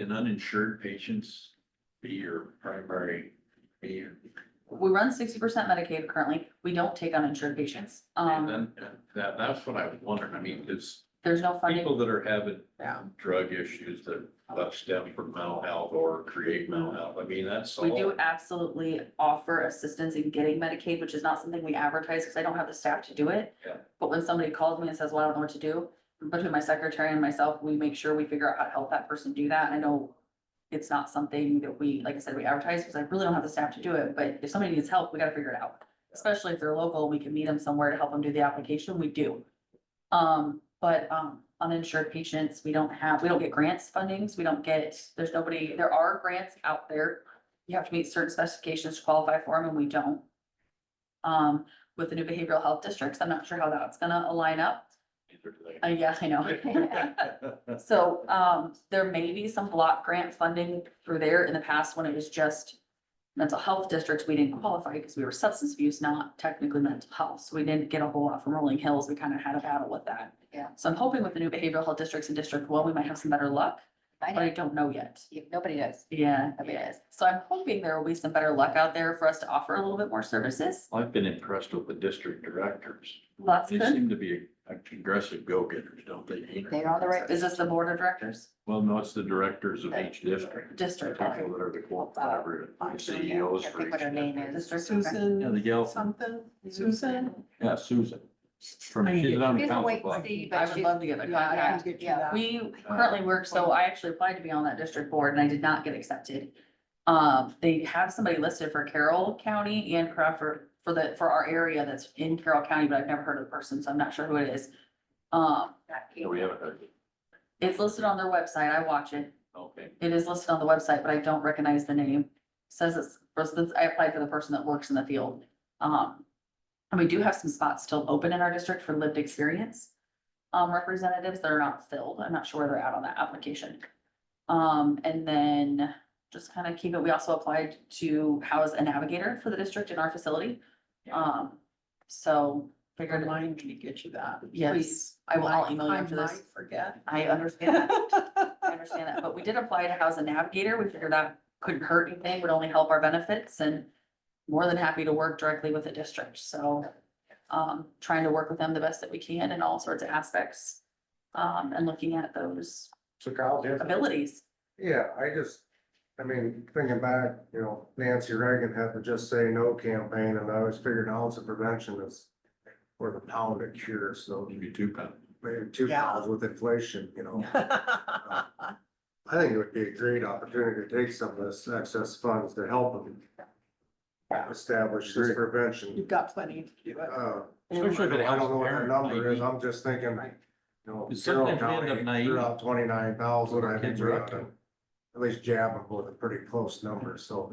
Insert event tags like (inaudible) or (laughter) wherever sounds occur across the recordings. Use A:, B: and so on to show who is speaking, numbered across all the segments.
A: Can uninsured patients be your primary, be your-
B: We run sixty percent Medicaid currently. We don't take uninsured patients.
A: and
B: Um,
A: then, that, that's what I was wondering, I mean, because
B: there's no funding.
A: people that are having
B: Yeah.
A: drug issues that that stem from mental health or create mental health, I mean, that's
B: We do
A: all.
B: absolutely offer assistance in getting Medicaid, which is not something we advertise because I don't have the staff to do it.
A: Yeah.
B: But when somebody calls me and says, well, I don't know what to do, between my secretary and myself, we make sure we figure out how to help that person do that. I know it's not something that we, like I said, we advertise because I really don't have the staff to do it, but if somebody needs help, we gotta figure it out. Especially if they're local, we can meet them somewhere to help them do the application, we do. Um, but, um, uninsured patients, we don't have, we don't get grants fundings, we don't get, there's nobody, there are grants out there. You have to meet certain specifications to qualify for them and we don't. Um, with the new behavioral health districts, I'm not sure how that's gonna align up.
A: Neither do
B: Uh, yeah,
A: (laughs)
B: I know.
A: they.
B: So, um, there may be some block grant funding through there in the past when it was just mental health districts, we didn't qualify because we were substance abuse, not technically mental health. So we didn't get a whole lot from Rolling Hills. We kind of had a battle with that.
C: Yeah.
B: So I'm hoping with the new behavioral health districts in District One, we might have some better luck,
C: I
B: but I
C: know,
B: don't know yet.
C: you- nobody does,
B: Yeah.
C: nobody does.
B: So I'm hoping there will be some better luck out there for us to offer a little bit more services.
A: I've been impressed with the district directors.
B: Well, That's
A: They
B: good.
A: seem to be aggressive go-getters, don't they?
C: They're on the right.
B: Is this the board of directors?
A: Well, no, it's the directors of each district.
B: District.
A: People that are the co- whatever, CEOs
C: I
A: E for
C: think
A: each
C: what her name
A: district.
C: is.
B: District.
A: Yeah, the
D: Susan,
A: Yelp.
D: something, Susan?
A: Yeah, Susan. From,
D: I
A: she's
D: get-
A: on the
C: She's a wait
A: council.
C: and
A: block.
C: see,
B: I
C: but
B: would
C: she's,
B: love to get the
C: yeah, I
B: contact.
C: can get you that.
B: We currently work, so I actually applied to be on that district board and I did not get accepted. Um, they have somebody listed for Carroll County and Crawford for the, for our area that's in Carroll County, but I've never heard of the person, so I'm not sure who it is. Um,
A: Yeah, we haven't heard it.
B: it's listed on their website. I watch it.
A: Okay.
B: It is listed on the website, but I don't recognize the name. Says it's, was this- I applied for the person that works in the field. Um, and we do have some spots still open in our district for lived experience. Um, representatives that are not filled. I'm not sure where they're at on that application. Um, and then just kind of keep it, we also applied to house a navigator for the district in our facility. Um, so figured,
D: Remind me to get you that.
B: Yes,
D: please.
B: I will- I'll
D: Might-
B: email you
D: I
B: after this.
D: might Forget.
B: I understand that. I understand that, but we did apply to house a navigator. We figured that couldn't hurt anything, would only help our benefits and more than happy to work directly with the district, so um, trying to work with them the best that we can in all sorts of aspects. Um, and looking at those
E: So Kyle, yeah,
B: abilities.
E: yeah, I just, I mean, thinking back, you know, Nancy Reagan had the Just Say No campaign, and I always figured ounce of prevention is worth a pound of cure, so
A: Maybe two pounds.
E: maybe two
D: Yeah.
E: pounds with inflation, you know? I think it would be a great opportunity to take some of this excess funds to help them establish this prevention.
D: (laughs) You've got plenty to do it.
E: Uh,
A: Especially if it
E: I
A: helps
E: don't know what the
A: parent
E: number is,
A: ID.
E: I'm just thinking, you know,
A: Because
E: Carroll
A: sometimes we end
E: County,
A: up naive.
E: they're out twenty-nine thousand, I think
A: Kids are
E: we
A: up
E: ought
A: to
E: to
A: it.
E: at least jab them with a pretty close number, so,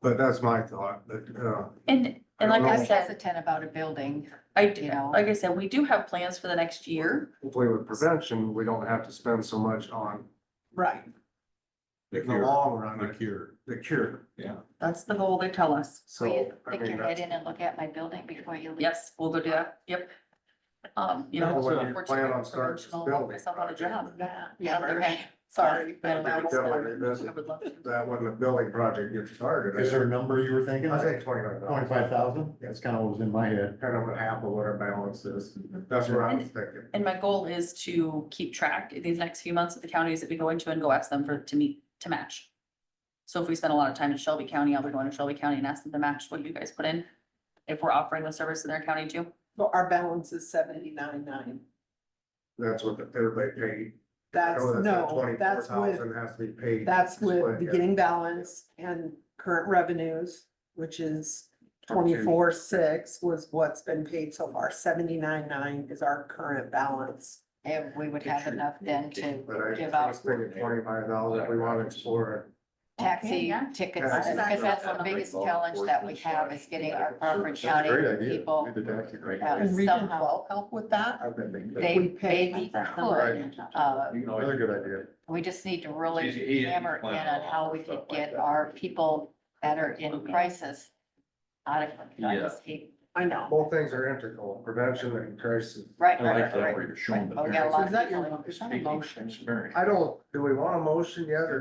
E: but that's my thought, but, uh,
B: And, and like
E: I
B: I
E: don't know.
B: said,
C: hesitant about a building,
B: I,
C: you
B: do-
C: know.
B: like I said, we do have plans for the next year.
E: hopefully with prevention, we don't have to spend so much on,
D: Right.
E: in the
A: cure.
E: long run,
A: The
E: the-
A: cure.
E: the cure,
B: That's the goal they tell us.
C: Will
E: so.
C: you
E: I
C: stick
E: mean,
C: your head
E: that's-
C: in and look at my building before you leave?
B: Yes, we'll go do that. Yep. Um, you know.
E: Now, when you
B: unfortunately,
E: plan on starting this
B: promotional,
E: building
B: myself on a job.
E: project,
D: Yeah.
C: Yeah, okay.
D: Sorry.
B: Yeah,
E: we could definitely
B: I
E: revisit
B: would love to.
E: That when the building project gets started.
F: Is there a number you were thinking?
E: I think twenty-nine thousand,
F: Twenty-five thousand? That's kind of what was in my head.
E: kind of an apple, what our balance is, that's what I was thinking.
B: And my goal is to keep track these next few months of the counties that we go into and go ask them for, to meet, to match. So if we spend a lot of time in Shelby County, I'll be going to Shelby County and ask them to match what you guys put in. If we're offering the service in their county too.
D: Well, our balance is seventy-nine nine.
E: That's what the- everybody paid. I
D: That's,
E: know that that
D: no, that's with,
E: 24,000 Has to be paid.
D: that's with
E: split, yeah.
D: beginning balance and current revenues, which is
E: Up to-
D: twenty-four six was what's been paid so far. Seventy-nine nine is our current balance.
C: And we would have enough then to
E: But I
C: give
E: just
C: out
E: was thinking twenty-five thousand, we want to explore.
B: Okay,
C: taxi
B: yeah.
C: tickets,
E: That's
C: because
B: exactly
C: that's
A: what
C: the
A: I'm
C: biggest
A: thinking.
C: challenge that we have is getting our Crawford County people.
F: idea.
C: Can Region somehow- twelve
D: help with that?
C: They,
D: We pay-
C: they could, uh,
F: Another good idea.
C: we just need to
A: It's easy- easy
C: really
A: to
C: hammer in
A: plan
C: on
A: all
C: how
A: that
C: we could
A: stuff like
C: get
A: that.
C: our people that are in crisis out of, out
A: Yeah.
C: of state.
D: I know.
E: Both things are integral, prevention and crisis.
C: Right,
A: I like
C: right,
A: that
C: right.
A: where you're showing the.
C: Right. Oh, yeah, a
A: parents.
C: lot
D: So is that
C: people
D: your-
C: in-
D: is that a motion?
A: Experience.
E: I don't, do we want a motion yet or